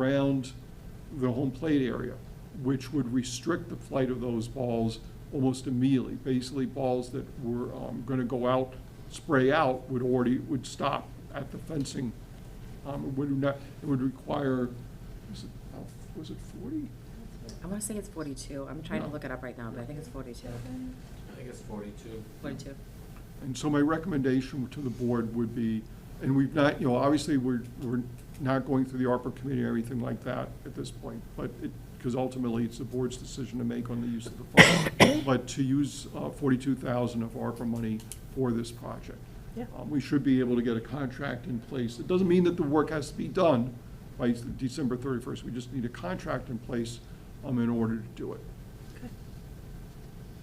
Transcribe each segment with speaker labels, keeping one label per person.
Speaker 1: around the home plate area, which would restrict the flight of those balls almost immediately. Basically, balls that were going to go out, spray out, would already, would stop at the fencing. Um, It would not, it would require, was it, how- was it 40?
Speaker 2: I want to say it's 42. I'm trying to look it up right now, but I think it's 42.
Speaker 3: I think it's forty-two.
Speaker 2: 42.
Speaker 1: And so my recommendation to the board would be, and we've not, you know, obviously, we're, we're not going through the ARPA committee or anything like that at this point, but it, because ultimately, it's the board's decision to make on the use of the fund, but to use uh, forty-two thousand of ARPA money for this project.
Speaker 4: Yeah.
Speaker 1: Um, We should be able to get a contract in place. It doesn't mean that the work has to be done by December thirty-first. We just need a contract in place um, in order to do it.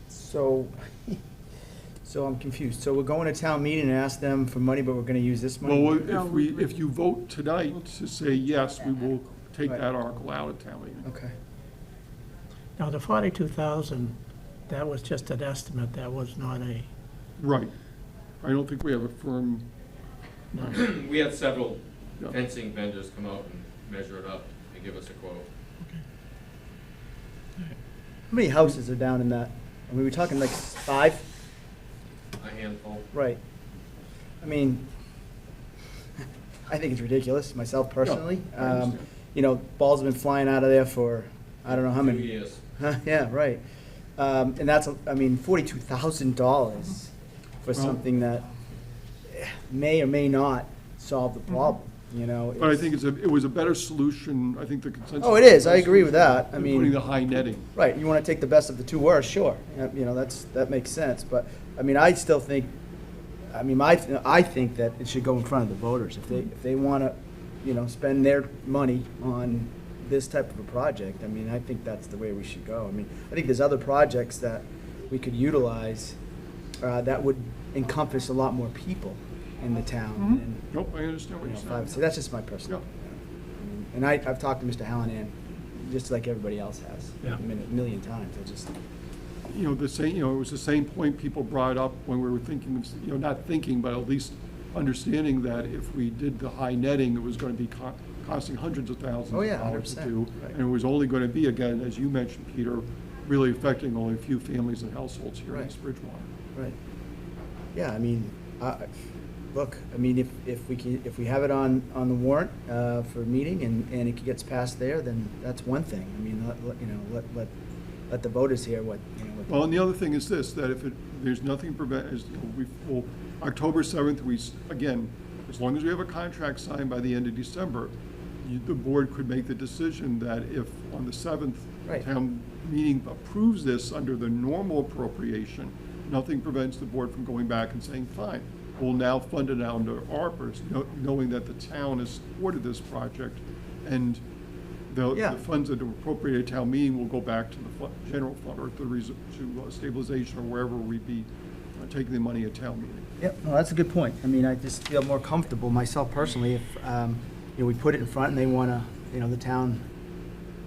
Speaker 5: So, so I'm confused. So we're going to town meeting and ask them for money, but we're gonna use this money?
Speaker 1: Well,
Speaker 4: No,
Speaker 1: if
Speaker 4: we-
Speaker 1: we, if you vote tonight to say yes, we will take
Speaker 5: Right.
Speaker 1: that article out of town meeting.
Speaker 5: Okay,
Speaker 4: Now, the forty-two thousand, that was just an estimate, that was not a,
Speaker 1: Right. I don't think we have a firm,
Speaker 3: We had several
Speaker 1: Yeah.
Speaker 3: fencing vendors come out and measure it up and give us a quote.
Speaker 5: how many houses are down in that? I mean, we're talking like five,
Speaker 3: A handful.
Speaker 5: right? I mean, I think it's ridiculous, myself personally.
Speaker 1: I
Speaker 5: Um,
Speaker 1: understand.
Speaker 5: you know, balls have been flying out of there for, I don't know how many.
Speaker 3: Two years.
Speaker 5: Huh, yeah, right. Um, and that's, a- I mean, forty-two thousand dollars for
Speaker 1: Well-
Speaker 5: something that eh, may or may not solve the problem, you know?
Speaker 1: but I think it's a, it was a better solution, I think the consensus.
Speaker 5: Oh, it is. I agree with that. I
Speaker 1: than
Speaker 5: mean-
Speaker 1: Putting the high netting.
Speaker 5: Right, you wanna take the best of the two worst, sure, Yeah, you know, that's, that makes sense, but, I mean, I still think, I mean, my, I think that it should go in front of the voters, if they, if they wanna, you know, spend their money on this type of a project, I mean, I think that's the way we should go, I mean, I think there's other projects that we could utilize, uh, that would encompass a lot more people in the town, and,
Speaker 1: Nope, I understand
Speaker 5: you
Speaker 1: what
Speaker 5: know,
Speaker 1: you're
Speaker 5: if
Speaker 1: saying.
Speaker 5: I- so that's just my personal. And I, I've talked to Mr. Hallinan, just like everybody else has,
Speaker 4: Yeah.
Speaker 5: a min- million times, I just,
Speaker 1: you know, the same, you know, it was the same point people brought up when we were thinking, of you know, not thinking, but at least understanding that if we did the high netting, it was going to be co- costing hundreds of thousands
Speaker 5: Oh,
Speaker 1: of
Speaker 5: yeah,
Speaker 1: dollars to
Speaker 5: 100%,
Speaker 1: do.
Speaker 5: right.
Speaker 1: And it was only going to be, again, as you mentioned, Peter, really affecting only a few families and households here in
Speaker 5: Right.
Speaker 1: East Bridgewater.
Speaker 5: right. Yeah, I mean, I, I- look, I mean, if, if we can, if we have it on, on the warrant, uh, for a meeting and, and it gets passed there, then that's one thing. I mean, let, let, you know, let, let, let the voters hear what, you know, what.
Speaker 1: Well, and the other thing is this, that if it, there's nothing prevent, is, you know, we, well, October seventh, we, s- again, as long as we have a contract signed by the end of December, you, the board could make the decision that if on the seventh,
Speaker 5: Right.
Speaker 1: town meeting approves this under the normal appropriation, nothing prevents the board from going back and saying, fine, we'll now fund it under ARPA's, kno- knowing that the town has supported this project, and the,
Speaker 5: Yeah.
Speaker 1: the funds that are appropriated at town meeting will go back to the fu- general fund or to the reser- to uh, stabilization or wherever we be uh, taking the money at town meeting.
Speaker 5: Yep, no, that's a good point. I mean, I just feel more comfortable myself personally if, um, you know, we put it in front and they wanna, you know, the town,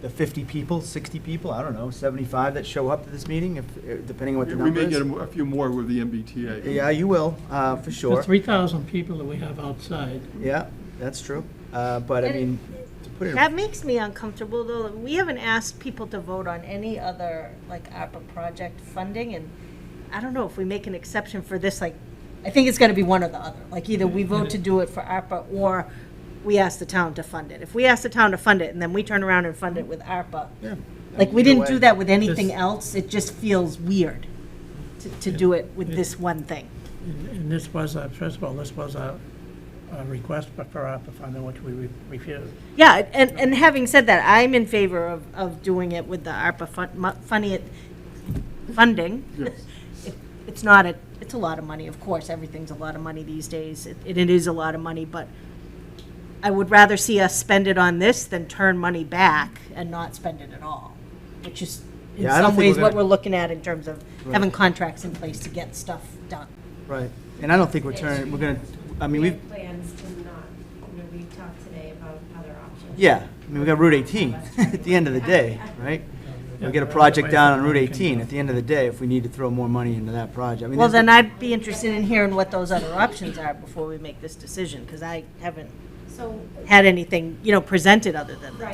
Speaker 5: the fifty people, sixty people, I don't know, seventy-five that show up to this meeting, if, eh, depending on what the
Speaker 1: We
Speaker 5: number
Speaker 1: may
Speaker 5: is.
Speaker 1: get a mo- a few more with the MBTA.
Speaker 5: Yeah, you will, uh, for
Speaker 4: the
Speaker 5: sure.
Speaker 4: three thousand people that we have outside,
Speaker 5: Yeah, that's true. Uh, but I
Speaker 6: And-
Speaker 5: mean, to put it,
Speaker 6: That makes me uncomfortable, though. We haven't asked people to vote on any other, like, ARPA project funding, and I don't know if we make an exception for this, like, I think it's gotta be one or the other. Like, either we vote to do it for ARPA, or we ask the town to fund it. If we ask the town to fund it, and then we turn around and fund it with ARPA,
Speaker 1: Yeah.
Speaker 6: like, we
Speaker 5: Either
Speaker 6: didn't
Speaker 5: way.
Speaker 6: do that with anything
Speaker 4: This-
Speaker 6: else, it just feels weird to, to do it with this one thing.
Speaker 4: and and this was, a- first of all, this was a, a request for ARPA funding, which we re- refused.
Speaker 6: Yeah, and, and having said that, I'm in favor of, of doing it with the ARPA fun, mu- funny, it- funding.
Speaker 1: Yes.
Speaker 6: It- It's not a, it's a lot of money, of course, everything's a lot of money these days, it, it is a lot of money, but I would rather see us spend it on this than turn money back and not spend it at all, which is in
Speaker 5: Yeah, I don't
Speaker 6: some
Speaker 5: think
Speaker 6: ways
Speaker 5: we're
Speaker 6: what
Speaker 5: gonna-
Speaker 6: we're looking at in terms of having contracts in place to get stuff done.
Speaker 5: right, and I don't think we're turning, we're gonna, I mean,
Speaker 7: We
Speaker 5: we've,
Speaker 7: have plans to not, you know, we talked today about other options.
Speaker 5: yeah, I mean, we got Route eighteen at the end of the day, right? We get a project down on Route eighteen, at the end of the day, if we need to throw more money into that project, I mean.
Speaker 6: Well,
Speaker 5: there's-
Speaker 6: then I'd be interested in hearing what those other options are before we make this decision, because I haven't
Speaker 7: So
Speaker 6: had anything, you know, presented other than that.